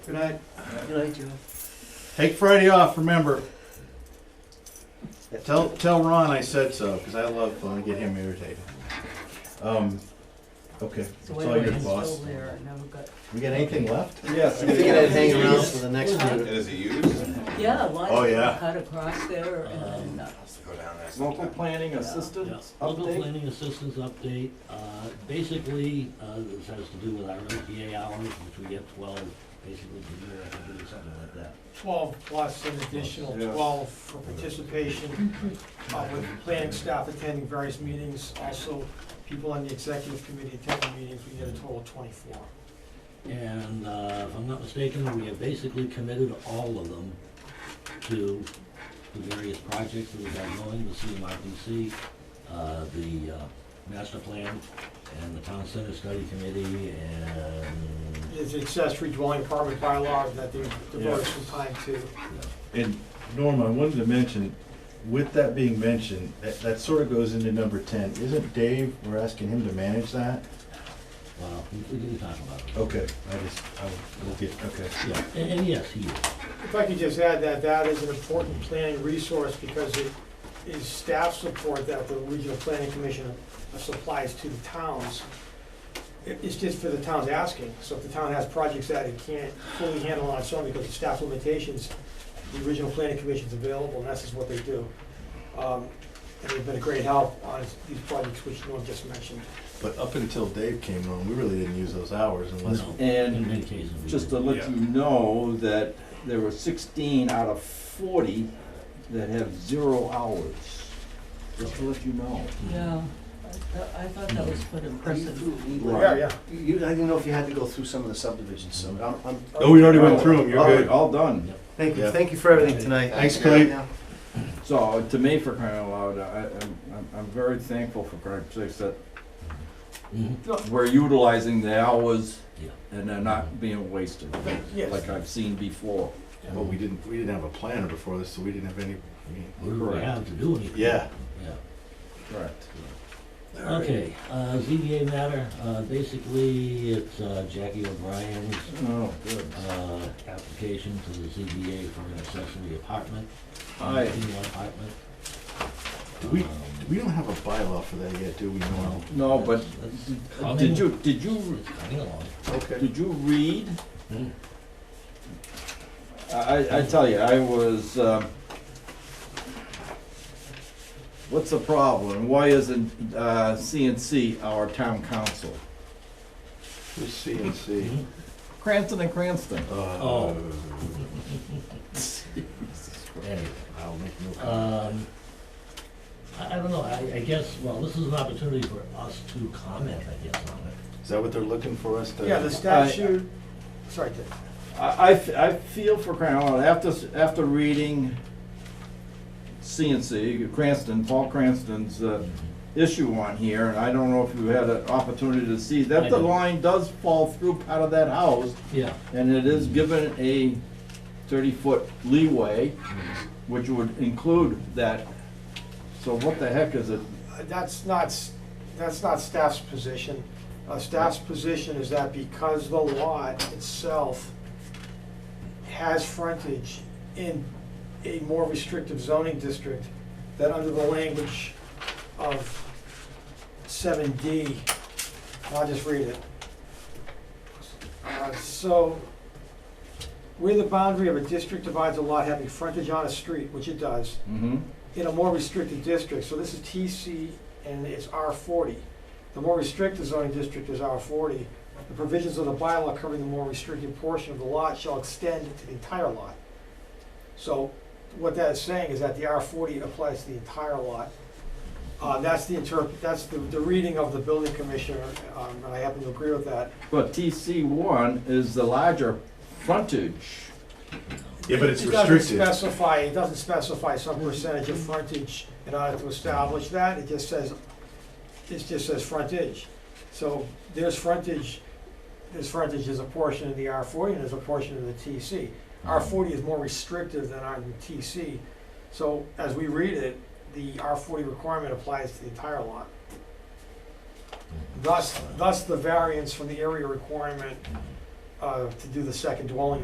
Good night. Good night, Joe. Take Friday off, remember. Tell, tell Ron I said so, because I love, when I get him irritated. Um, okay, it's So all anyway, your it's still boss. there, I never got. We got anything left? Yes. I figured I'd hang around for the next And few. is it used? Yeah, lots Oh, of yeah. them cut across there and, uh, Go down there Local sometime. planning Yeah. assistance Local update? planning assistance update, uh, basically, uh, this has to do with our OTA hours, which we get twelve, basically, a year, I think, or something like that. 12 plus an additional Yeah. 12 for participation, uh, with planning staff attending various meetings, also people on the executive committee attending meetings, we get a total of 24. And, uh, if I'm not mistaken, we have basically committed all of them to the various projects that we have going, the CMRPC, uh, the, uh, master plan, and the town center study committee, and It's accessory dwelling apartment bylaw that they devoted some time to. And Norm, I wanted to mention, with that being mentioned, that, that sort of goes into number ten. Isn't Dave, we're asking him to manage that? Well, we we can talk about it. Okay, I just, I, we'll get, okay. Yeah, and, and yes, he is. If I could just add that, that is an important planning resource because it is staff support that the regional planning commission supplies to the towns. It- It's just for the towns asking, so if the town has projects that it can't fully handle on its own because of staff limitations, the regional planning commission's available, and that's just what they do. Um, And they've been a great help on these projects which Norm just mentioned. But up until Dave came on, we really didn't use those hours unless, No, in many And cases. we just do. to let you know that there were sixteen out of forty that have zero hours. Just to let you know. yeah, I thought- I thought that was put in person. Right. yeah. You, I didn't know if you had to go through some of the subdivisions, so I'm, I'm, oh, we already went through them, you're All- good. All done. thank Yeah. you, thank you for everything tonight. Thanks, Clay. Yeah. So to me, for crying out loud, I, I'm, I'm- I'm very thankful for Craig Six that Mhm. we're utilizing the hours Yeah. and they're not being wasted, Yes. like I've seen before. But we didn't, we didn't have a planner before this, so we didn't have any, I mean, We don't Correct. have to do anything. yeah. Yeah. Correct. Okay, uh, ZBA matter, uh, basically, it's uh, Jackie O'Brien's, Oh, good. uh, application to the ZBA for an accessory apartment. Aye. In-law apartment. Do we- Um, We don't have a bylaw for that yet, do we, Norm? No, but that's- that's did you, did you, coming- It's coming along. Okay. did you read? Hmm. I, I- I tell you, I was, um, what's the problem? Why isn't uh, CNC our town council? Who's CNC? Mhm. Cranston and Cranston. Uh, Oh. Anyway. I'll make no comment. Um, I, I don't know, I, I guess, well, this is an opportunity for us to comment, I guess, on it. Is that what they're looking for us to? Yeah, the statute, sorry, Dave. I, I f- I feel for crying out loud, after, s- after reading CNC, Cranston, Paul Cranston's uh, issue on here, and I don't know if you had an opportunity to see, I that the did. line does fall through out of that house, Yeah. and it is given a thirty-foot leeway, which would include that. So what the heck is it? Uh, That's not, s- that's not staff's position. Uh, Staff's position is that because the lot itself has frontage in a more restrictive zoning district, that under the language of seven D, I'll just read it. Uh, So, where the boundary of a district divides a lot having frontage on a street, which it does, Mm-hmm. in a more restricted district, so this is TC and it's R forty. The more restricted zoning district is R forty. The provisions of the bylaw covering the more restricted portion of the lot shall extend to the entire lot. So what that is saying is that the R forty applies to the entire lot. Uh, that's the interpret, that's the, the reading of the building commissioner, um, and I happen to agree with that. But TC one is the larger frontage. Yeah, but it's It doesn't restricted. specify, it doesn't specify some percentage of frontage in order to establish that, it just says, it just says frontage. So there's frontage, there's frontage is a portion of the R forty and there's a portion of the TC. Mm-hmm. R forty is more restrictive than our TC, so as we read it, the R forty requirement applies to the entire lot. Mm-hmm. Thus, thus the variance from the area requirement, uh, to do the second dwelling